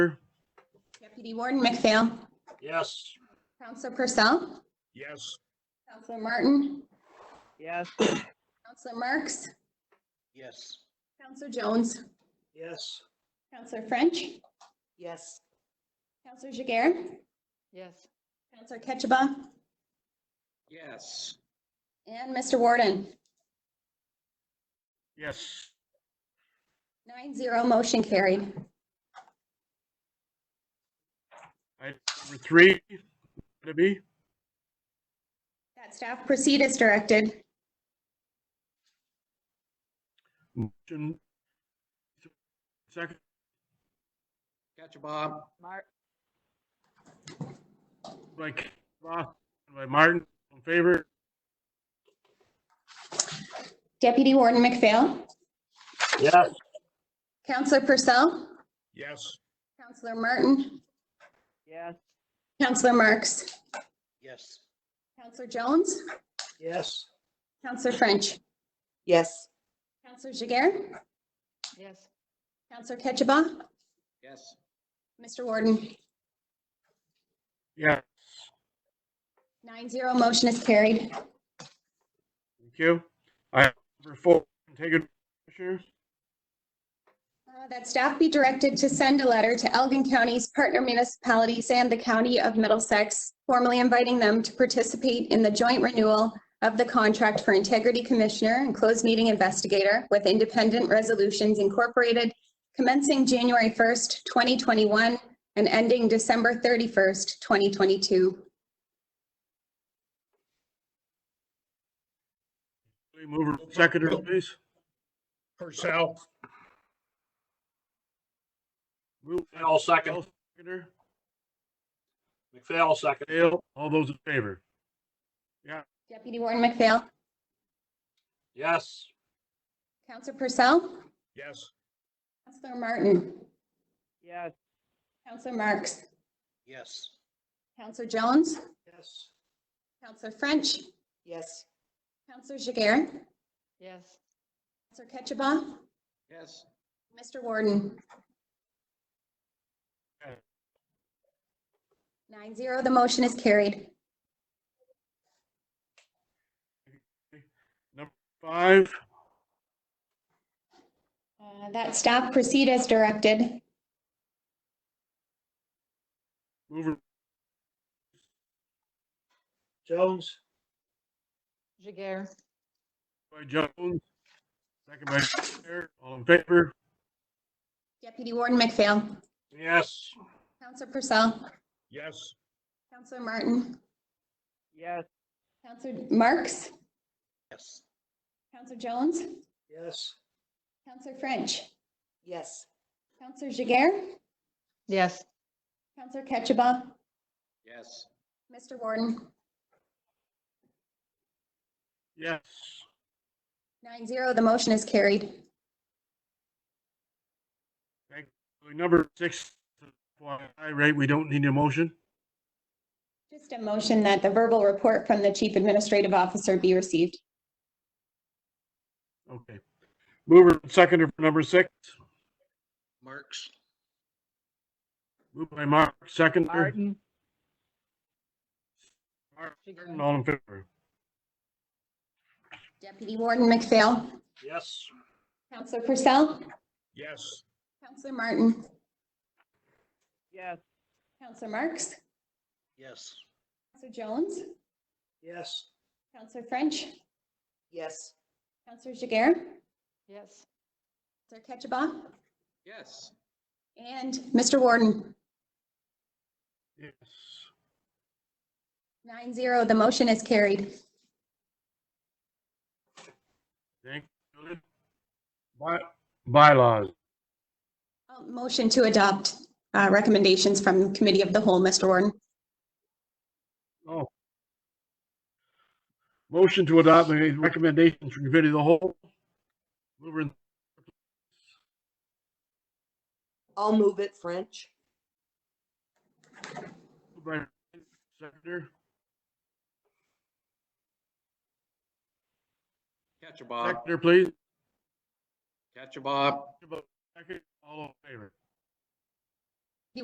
Deputy Warden McPhail. Yes. Counselor Purcell. Yes. Counselor Martin. Yes. Counselor Marks. Yes. Counselor Jones. Yes. Counselor French. Yes. Counselor Jiguer. Yes. Counselor Ketchiba. Yes. And Mr. Warden. Yes. Nine zero, motion carried. Item number three, to be, That staff proceed as directed. motion. Second, Catch a Bob. Mar, by Kavanaugh, second by Martin, in favor, Deputy Warden McPhail. Yes. Counselor Purcell. Yes. Counselor Martin. yes. Counselor Marks. Yes. Counselor Jones. Yes. Counselor French. Yes. Counselor Jiguer. Yes. Counselor Ketchiba. Yes. Mr. Warden. Yeah, Nine zero, motion is carried. Uh, thank you. Item number four, take it, Commissioners. Uh, That staff be directed to send a letter to Elgin County's partner municipalities and the County of Middlesex, formally inviting them to participate in the joint renewal of the contract for integrity commissioner and closed meeting investigator with independent resolutions incorporated commencing January 1st, 2021 and ending December 31st, 2022. Please move her seconder, please. Purcell, Move. I'll second. Seconder, McPhail second. Dale, all those in favor? Deputy Warden McPhail. Yes. Counselor Purcell. Yes. Counselor Martin. Yes. Counselor Marks. Yes. Counselor Jones. Yes. Counselor French. Yes. Counselor Jiguer. Yes. Counselor Ketchiba. Yes. Mr. Warden. Yes. Nine zero, the motion is carried. Five, Uh, That staff proceed as directed. move her Jones? Jiguer. by Jones, second by Fair, all in favor? Deputy Warden McPhail. Yes. Counselor Purcell. Yes. Counselor Martin. Yes. Counselor Marks. Yes. Counselor Jones. Yes. Counselor French. Yes. Counselor Jiguer. Yes. Counselor Ketchiba. Yes. Mr. Warden. Yes. Nine zero, the motion is carried. Number six, FYI, right, we don't need a motion. Just a motion that the verbal report from the Chief Administrative Officer be received. Okay. Mover and seconder for number six, Marks. moved by Mark, seconder, Martin. Mark, Jiguer. all in favor? Deputy Warden McPhail. Yes. Counselor Purcell. Yes. Counselor Martin. Yes. Counselor Marks. Yes. Counselor Jones. Yes. Counselor French. Yes. Counselor Jiguer. Yes. Counselor Ketchiba. Yes. And Mr. Warden. Yes. Nine zero, the motion is carried. Thank you. By, bylaws, Uh, Motion to adopt uh, recommendations from Committee of the Whole, Mr. Warden. oh. Motion to adopt the recommendations from committee of the whole. Mover and I'll move it, French. moved by seconder, Catch a Bob. seconder, please. Uh, Catch a Bob. Second, all in favor?